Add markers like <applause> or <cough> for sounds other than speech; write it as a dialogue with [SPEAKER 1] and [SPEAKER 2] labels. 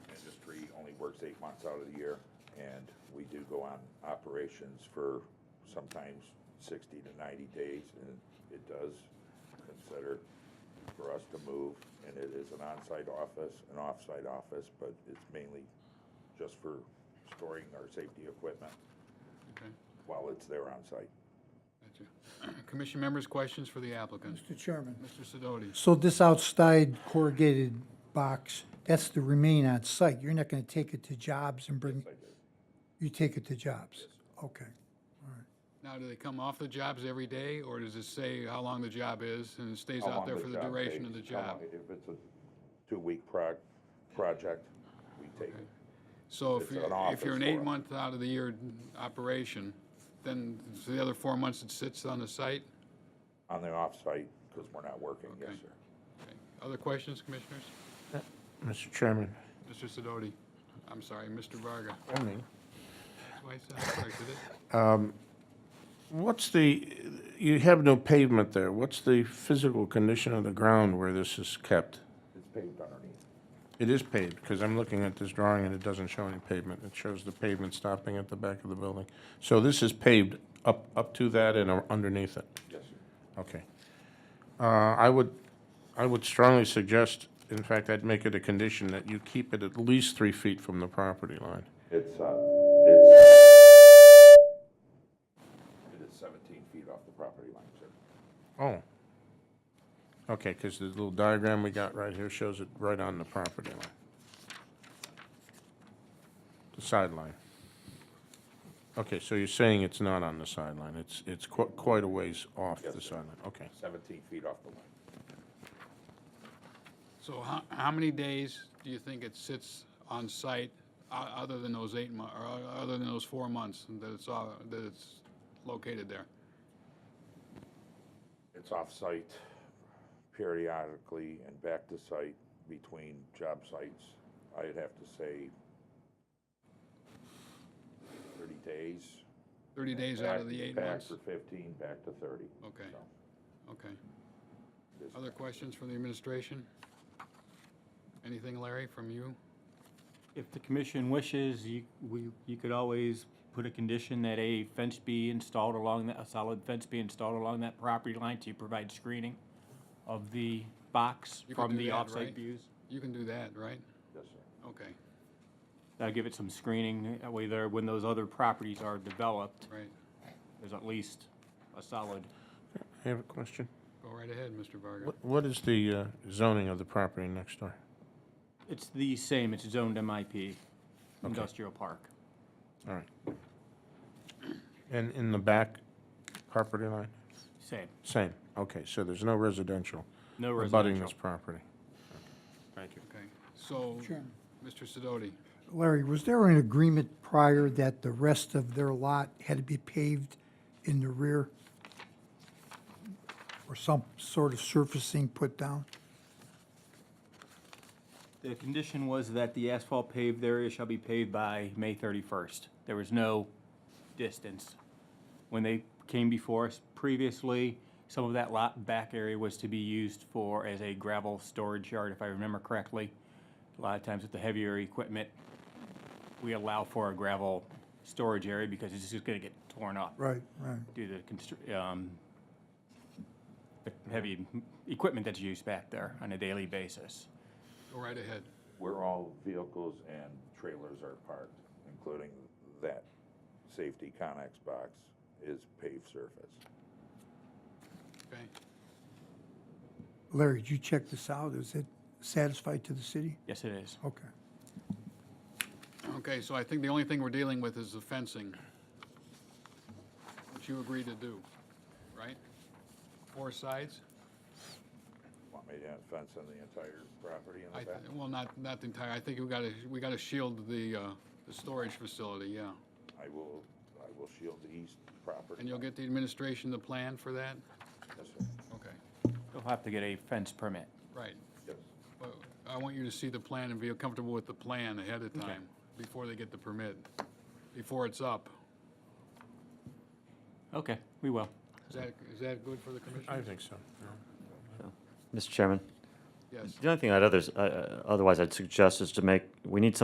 [SPEAKER 1] works eight months out of the year, and we do go on operations for sometimes sixty to ninety days, and it does consider for us to move, and it is an on-site office, an off-site office, but it's mainly just for storing our safety equipment
[SPEAKER 2] Okay,
[SPEAKER 1] while it's there on site.
[SPEAKER 2] gotcha. <clears throat> Commission members, questions for the applicant?
[SPEAKER 3] Mr. Chairman,
[SPEAKER 2] Mr. Sidoti?
[SPEAKER 3] so this outside corrugated box, that's to remain on site. You're not going to take it to jobs and bring, you take it to jobs? Okay.
[SPEAKER 2] Now, do they come off the jobs every day, or does it say how long the job is and it stays out there for the duration of the job?
[SPEAKER 1] If it's a two-week prog, project, we take it.
[SPEAKER 2] So if
[SPEAKER 1] It's
[SPEAKER 2] you're,
[SPEAKER 1] an
[SPEAKER 2] if you're
[SPEAKER 1] office
[SPEAKER 2] an
[SPEAKER 1] for 'em.
[SPEAKER 2] eight-month out of the year operation, then it's the other four months it sits on the site?
[SPEAKER 1] on the off-site, because we're not working, yes,
[SPEAKER 2] Okay.
[SPEAKER 1] sir.
[SPEAKER 2] Okay. Other questions, commissioners?
[SPEAKER 4] Mr. Chairman,
[SPEAKER 2] Mr. Sidoti? I'm sorry, Mr. Varga.
[SPEAKER 4] morning.
[SPEAKER 2] Twice, I'm sorry, could it-
[SPEAKER 4] What's the, you have no pavement there. What's the physical condition of the ground where this is kept?
[SPEAKER 1] It's paved underneath.
[SPEAKER 4] It is paved, because I'm looking at this drawing and it doesn't show any pavement. It shows the pavement stopping at the back of the building. So this is paved up, up to that and underneath it?
[SPEAKER 1] Yes, sir.
[SPEAKER 4] Okay. Uh, I would, I would strongly suggest, in fact, I'd make it a condition that you keep it at least three feet from the property line.
[SPEAKER 1] It's, uh, it's, it is 17 feet off the property line, sir.
[SPEAKER 4] Oh. Okay, because the little diagram we got right here shows it right on the property line. The sideline. Okay, so you're saying it's not on the sideline, it's, it's qu- quite a ways off
[SPEAKER 1] Yes,
[SPEAKER 4] the
[SPEAKER 1] sir.
[SPEAKER 4] sideline, okay.
[SPEAKER 1] 17 feet off the line.
[SPEAKER 2] So how, how many days do you think it sits on site, o- other than those eight months, or o- other than those four months that it's, uh, that it's located there?
[SPEAKER 1] It's off-site periodically and back to site between job sites. I'd have to say 30 days.
[SPEAKER 2] 30 days out of the eight months?
[SPEAKER 1] Back for 15, back to 30.
[SPEAKER 2] Okay,
[SPEAKER 1] So,
[SPEAKER 2] okay.
[SPEAKER 1] this-
[SPEAKER 2] Other questions from the administration? Anything, Larry, from you?
[SPEAKER 5] If the commission wishes, you, we, you could always put a condition that a fence be installed along, that- a solid fence be installed along that property line to provide screening of the box
[SPEAKER 2] You could
[SPEAKER 5] from
[SPEAKER 2] do
[SPEAKER 5] the
[SPEAKER 2] that, right?
[SPEAKER 5] offsite views.
[SPEAKER 2] You can do that, right?
[SPEAKER 1] Yes, sir.
[SPEAKER 2] Okay,
[SPEAKER 5] That'll give it some screening, that way there, when those other properties are developed,
[SPEAKER 2] right.
[SPEAKER 5] there's at least a solid.
[SPEAKER 4] I have a question.
[SPEAKER 2] Go right ahead, Mr. Varga.
[SPEAKER 4] What, what is the uh, zoning of the property next door?
[SPEAKER 5] It's the same, it's zoned MIP, industrial park.
[SPEAKER 4] All right. And in the back property line?
[SPEAKER 5] Same,
[SPEAKER 4] Same, okay, so there's no residential
[SPEAKER 5] no
[SPEAKER 4] abutting
[SPEAKER 5] residential.
[SPEAKER 4] this property. Thank you.
[SPEAKER 2] Okay, so,
[SPEAKER 3] Chairman.
[SPEAKER 2] Mr. Sidoti,
[SPEAKER 3] Larry, was there an agreement prior that the rest of their lot had to be paved in the rear? Or some sort of surfacing put down?
[SPEAKER 5] The condition was that the asphalt paved area shall be paved by May 31st. There was no distance. When they came before us previously, some of that lot back area was to be used for, as a gravel storage yard, if I remember correctly. A lot of times with the heavier equipment, we allow for a gravel storage area because it's just gonna get torn up
[SPEAKER 3] Right, right.
[SPEAKER 5] due to the constr- um, the heavy equipment that's used back there on a daily basis.
[SPEAKER 2] go right ahead.
[SPEAKER 1] where all vehicles and trailers are parked, including that safety Connex box, is paved surface.
[SPEAKER 2] Okay,
[SPEAKER 3] Larry, did you check this out? Is it satisfied to the city?
[SPEAKER 5] Yes, it is.
[SPEAKER 3] Okay.
[SPEAKER 2] okay, so I think the only thing we're dealing with is the fencing, which you agreed to do, right? Four sides?
[SPEAKER 1] Want me to have a fence on the entire property in
[SPEAKER 2] I,
[SPEAKER 1] the back?
[SPEAKER 2] well, not, not the entire, I think we gotta, we gotta shield the, uh, the storage facility, yeah.
[SPEAKER 1] I will, I will shield the east property.
[SPEAKER 2] And you'll get the administration the plan for that?
[SPEAKER 1] Yes, sir.
[SPEAKER 2] Okay,
[SPEAKER 5] You'll have to get a fence permit.
[SPEAKER 2] right.
[SPEAKER 1] Yes.
[SPEAKER 2] But I want you to see the plan and be comfortable with the plan ahead of time, before they get the permit, before it's up.
[SPEAKER 5] Okay, we will.
[SPEAKER 2] Is that, is that good for the commission?
[SPEAKER 4] I think so.
[SPEAKER 6] Mr. Chairman,
[SPEAKER 2] Yes.
[SPEAKER 6] the only thing I'd others, uh, uh, otherwise I'd suggest is to make, we need some